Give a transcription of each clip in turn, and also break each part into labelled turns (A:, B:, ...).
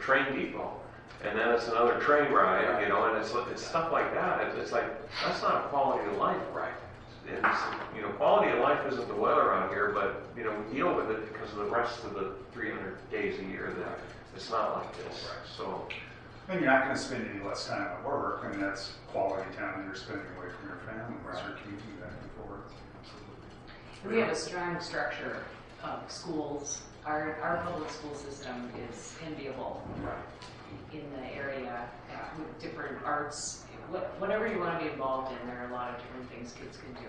A: train people, and then it's another train ride, you know, and it's, it's stuff like that. It's, it's like, that's not a quality of life, right? It's, you know, quality of life isn't the weather out here, but, you know, we deal with it because of the rest of the 300 days a year that it's not like this, so.
B: And you're not gonna spend any less time at work, I mean, that's quality time you're spending away from your family, or your community back and forth.
C: We have a strong structure of schools. Our, our public school system is enviable in the area uh, with different arts. What- Whatever you want to be involved in, there are a lot of different things kids can do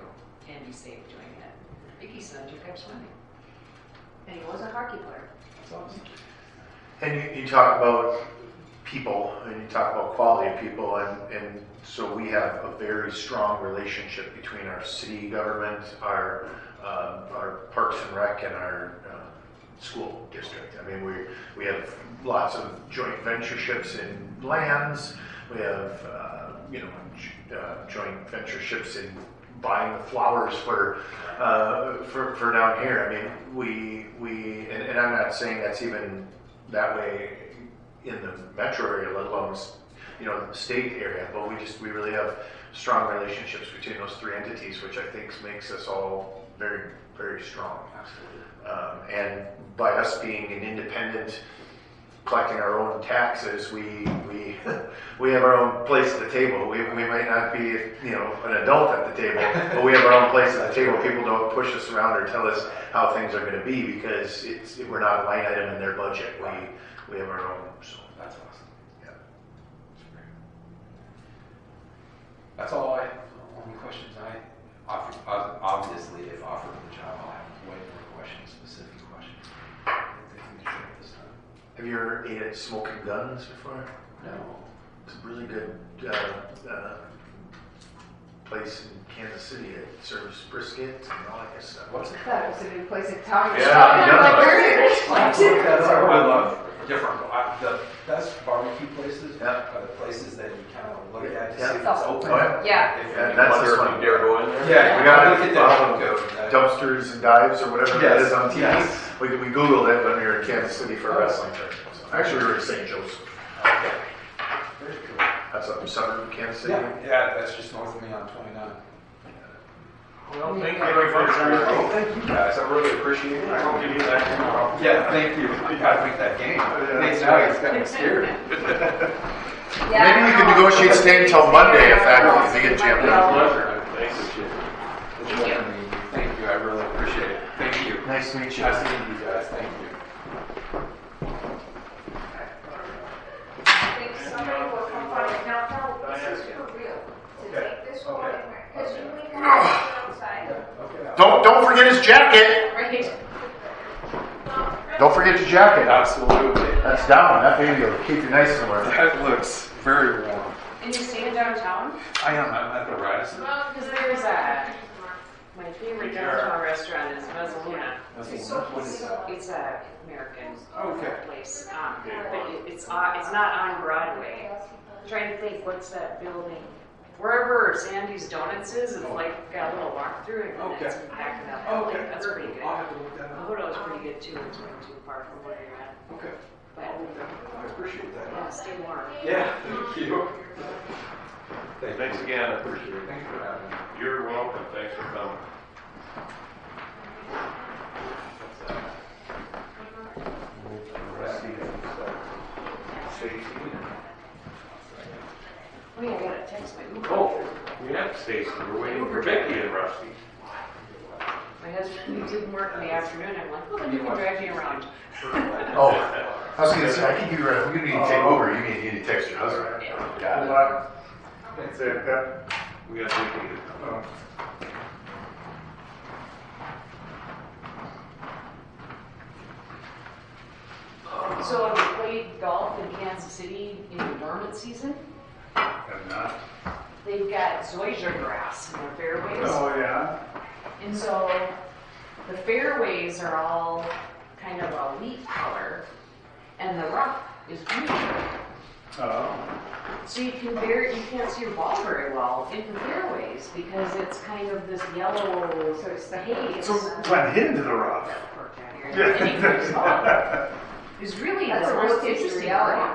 C: and be safe doing it. Vicky's son took up swimming. And he was a hockey player.
D: And you, you talk about people and you talk about quality of people and, and so we have a very strong relationship between our city government, our, um, our parks and rec and our uh, school district. I mean, we, we have lots of joint ventureships in lands, we have, uh, you know, j- uh, joint ventureships in buying the flowers for uh, for, for down here. I mean, we, we, and, and I'm not saying that's even that way in the metro area, let alone, you know, the state area, but we just, we really have strong relationships between those three entities, which I think makes us all very, very strong.
B: Absolutely.
D: Um, and by us being an independent, collecting our own taxes, we, we, we have our own place at the table. We, we might not be, you know, an adult at the table, but we have our own place at the table. People don't push us around or tell us how things are gonna be because it's, we're not a line item in their budget. We, we have our own, so.
E: That's awesome.
D: Yeah.
E: That's all I, only questions I offer, ob- obviously if offered the job, I'll have way more questions, specific questions. I think we can do it this time.
D: Have you ever ate at Smoking Guns before?
E: No.
D: It's a really good uh, uh, place in Kansas City. It serves brisket and all that good stuff.
E: What's it?
F: That was a good place to
C: Oh,
F: talk.
D: Yeah, yeah.
F: I'm like, where did it
E: I
F: go to?
E: love different, I- the best barbecue places
D: Yeah.
E: are the places that you kind of look at to
D: Yeah.
E: see if it's open.
D: Oh,
F: Yeah.
E: If
D: yeah. Yeah,
E: you
D: that's
E: wonder
D: this
E: if
D: one.
A: You dare go in there?
E: Yeah,
D: we got
E: look at
D: it.
E: that
D: Um,
E: logo.
D: Dumpsters and dives or whatever that
E: Yes,
D: is on TV.
E: yes.
D: We, we Googled it when we were in Kansas City for a wrestling tournament. So actually, we were in St. Joseph.
E: Okay. Very cool.
D: That's up in southern Kansas City.
E: Yeah, yeah, that's just north of me on 29.
A: Well, thank you very much for your help.
E: Oh, thank you guys. I really appreciate
A: I hope you do that tomorrow.
E: Yeah, Oh, thank you. I gotta make that game. Nate, now he's kind of scared.
F: Yeah.
D: Maybe we can negotiate staying till Monday if that if we get jammed up.
A: Pleasure. Thank you.
E: Thank you. Thank you. I really appreciate it. Thank you.
D: Nice to meet you.
E: Nice seeing you guys. Thank you.
G: I think somebody will come by, now, no, this is for real, to take this one and wear, because you leave one outside.
E: Okay.
D: Don't don't forget his jacket.
C: Right?
D: Don't forget your jacket.
E: Absolutely.
D: That's down. That baby will keep you nice somewhere.
E: That looks very warm.
C: And you staying downtown?
E: I am. I'm at the Radisson.
C: Because there's a, my favorite downtown restaurant is Mezzaluna.
E: That's warm. What is that?
C: It's a American
E: Okay.
C: place, um, but it- it's, on- it's not on Broadway. I'm Trying to think, what's that building? Wherever Sandy's Donuts is, it's like got a little walk through and then it's
E: Okay.
C: back in that building,
E: Okay.
C: that's pretty good.
E: I'll have to look that up.
C: Mahota's pretty good too, it's not too far from where you're at,
E: Okay. I'll
C: but,
E: look that up. I appreciate that.
C: yeah, stay warm.
E: Yeah, thank you.
A: Thanks again, I appreciate it.
E: Thanks for having me.
A: You're welcome, thanks for coming.
C: Oh yeah, I gotta text my Uber.
A: Oh, yeah, Stacy, we're waiting for Becky and Rusty.
C: My husband didn't work in the afternoon, I'm like, well, then you can drive me around.
D: Oh, I was gonna say I think you were. You need to take over. You need, you need to text your husband. Got it.
E: Thanks.
A: We got Becky to come.
C: So have you played golf in Kansas City in the dormant season?
B: Have not.
C: They've got zoysia grass in their fairways.
B: Oh, yeah?
C: And so the fairways are all kind of a wheat color and the rough is green.
B: Oh,
C: So you can very, you can't see your ball very well in the fairways because it's kind of this yellow, so it's the haze.
B: so went into the rough.
C: That part down here. And you can see the ball. It's really
F: That's
C: the
F: a
C: most
F: real-case
C: interesting
F: reality.
C: part.